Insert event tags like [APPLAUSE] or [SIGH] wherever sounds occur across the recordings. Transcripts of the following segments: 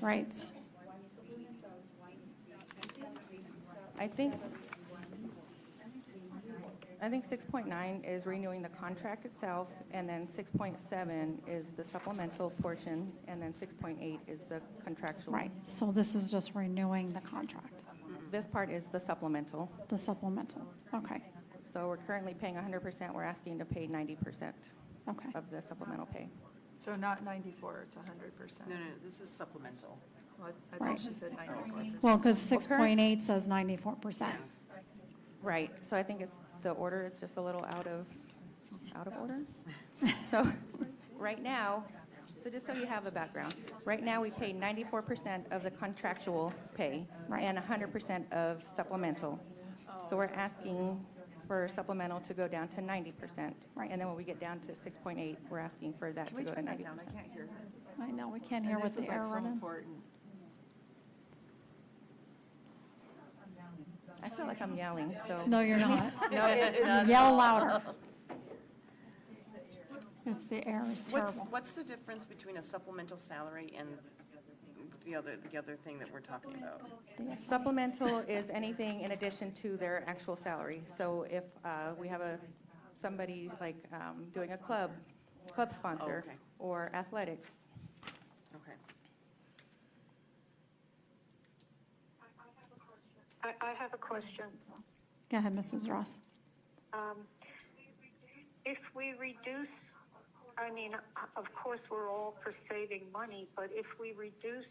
Right. I think, I think 6.9 is renewing the contract itself, and then 6.7 is the supplemental portion, and then 6.8 is the contractual. Right. So this is just renewing the contract, This part is the supplemental. the supplemental. Okay, So we're currently paying 100%, we're asking to pay 90% okay. of the supplemental pay. So not 94, it's 100%. No, no, this is supplemental. Well, I Right. thought she said 94%. Well, because 6.8 says 94%. Right, so I think it's, the order is just a little out of, out of [LAUGHS] order. So, right now, so just so you have a background, right now, we pay 94% of the contractual pay Right. and 100% of supplemental. So we're asking for supplemental to go down to 90%. Right. And then when we get down to 6.8, we're asking for that Can to we go to turn 90%. that down? I can't hear her. I know, we can't And hear this what is, the like, air so running. important. I feel like I'm yelling, so. No, you're not. [LAUGHS] No, it- it's- Yell louder. It's the air is What's, terrible. what's the difference between a supplemental salary and the other, the other thing that we're talking about? Supplemental is anything in addition to their actual salary. So if uh, we have a, somebody like um, doing a club, club sponsor, okay. or athletics, Okay. I, I have a question. Go ahead, Mrs. Ross. Um, If we reduce, I mean, o- of course, we're all for saving money, but if we reduce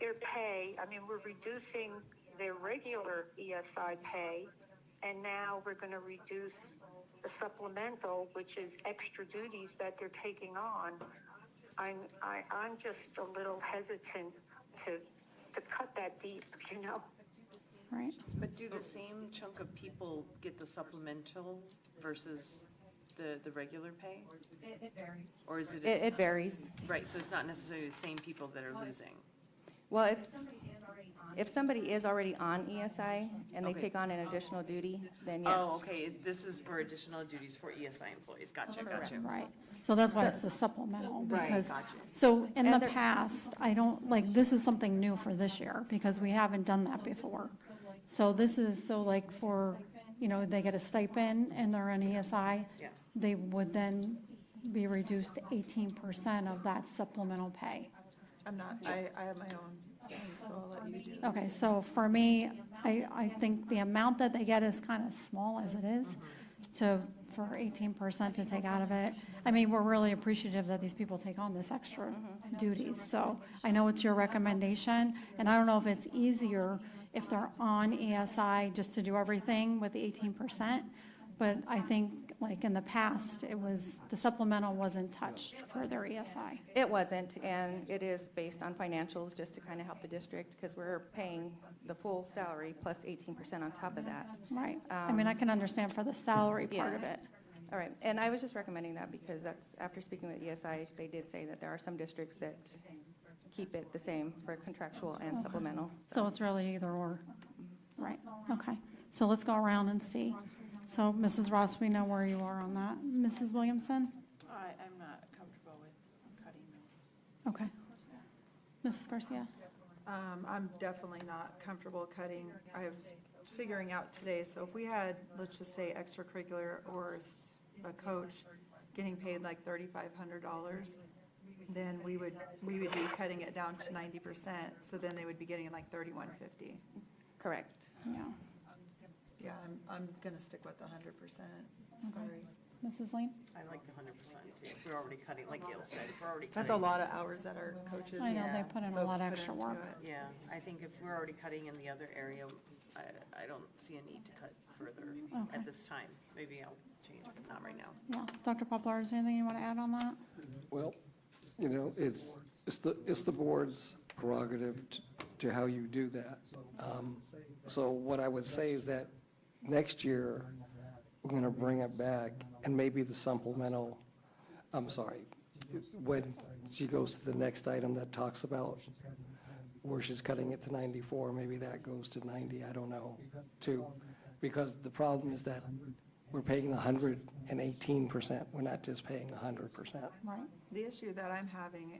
their pay, I mean, we're reducing their regular ESI pay, and now we're going to reduce the supplemental, which is extra duties that they're taking on. I'm, I, I'm just a little hesitant to, to cut that deep, [LAUGHS] you know? Right. But do the same chunk of people get the supplemental versus the, the regular pay? Or is it- it, it varies. right, so it's not necessarily the same people that are losing? Well, it's, if somebody is already on ESI and they Okay. take on an additional duty, then yes. Oh, okay, this is for additional duties for ESI employees, gotcha, gotcha. Right. So that's why it's a supplemental. Right, because- gotcha. So in the past, I don't, like, this is something new for this year because we haven't done that before. So this is, so like for, you know, they get a stipend and they're an ESI. Yeah. They would then be reduced to eighteen percent of that supplemental pay. I'm not, I, I have my own, thing, so I'll let you do it. Okay, so for me, I, I think the amount that they get is kind of small as it is to, for eighteen percent to take out of it. I mean, we're really appreciative that these people take on this extra duties, so I know it's your recommendation, and I don't know if it's easier if they're on ESI just to do everything with the eighteen percent, but I think, like, in the past, it was, the supplemental wasn't touched for their E ESI. It wasn't, and it is based on financials, just to kind of help the district, because we're paying the full salary plus 18% on top of that. Right, I mean, I can understand for the salary part yeah. of it. All right, and I was just recommending that because that's, after speaking with ESI, they did say that there are some districts that keep it the same for contractual and supplemental. So it's really either or. Right, okay. So let's go around and see. So Mrs. Ross, we know where you are on that. Mrs. Williamson? I, I'm not comfortable with cutting those. Okay. Mrs. Garcia? Um, I'm definitely not comfortable cutting, I was figuring out today, so if we had, let's just say extracurricular or s- a coach getting paid like thirty-five hundred dollars, then we would, we would be cutting it down to ninety percent, so then they would be getting like thirty-one fifty. Correct. Yeah. Yeah, I'm, I'm gonna stick with the hundred percent, sorry. Mrs. Lane? I like the hundred percent too, If we're already cutting, like Gail said, if we're already cutting. That's a lot of hours that our coaches I and know, they folks put put in a into lot of extra work. it. Yeah, I think if we're already cutting in the other area, I, I don't see a need to cut further Okay. at this time. Maybe I'll change, but not right now. Yeah. Dr. Poplar, is there anything you want to add on that? Well, you know, it's, it's the, it's the board's prerogative t- to how you do that. Um, So what I would say is that next year, we're going to bring it back, and maybe the supplemental, I'm sorry, when she goes to the next item that talks about where she's cutting it to 94, maybe that goes to 90, I don't know, too. Because the problem is that we're paying 118%, we're not just paying 100%. Right. The issue that I'm having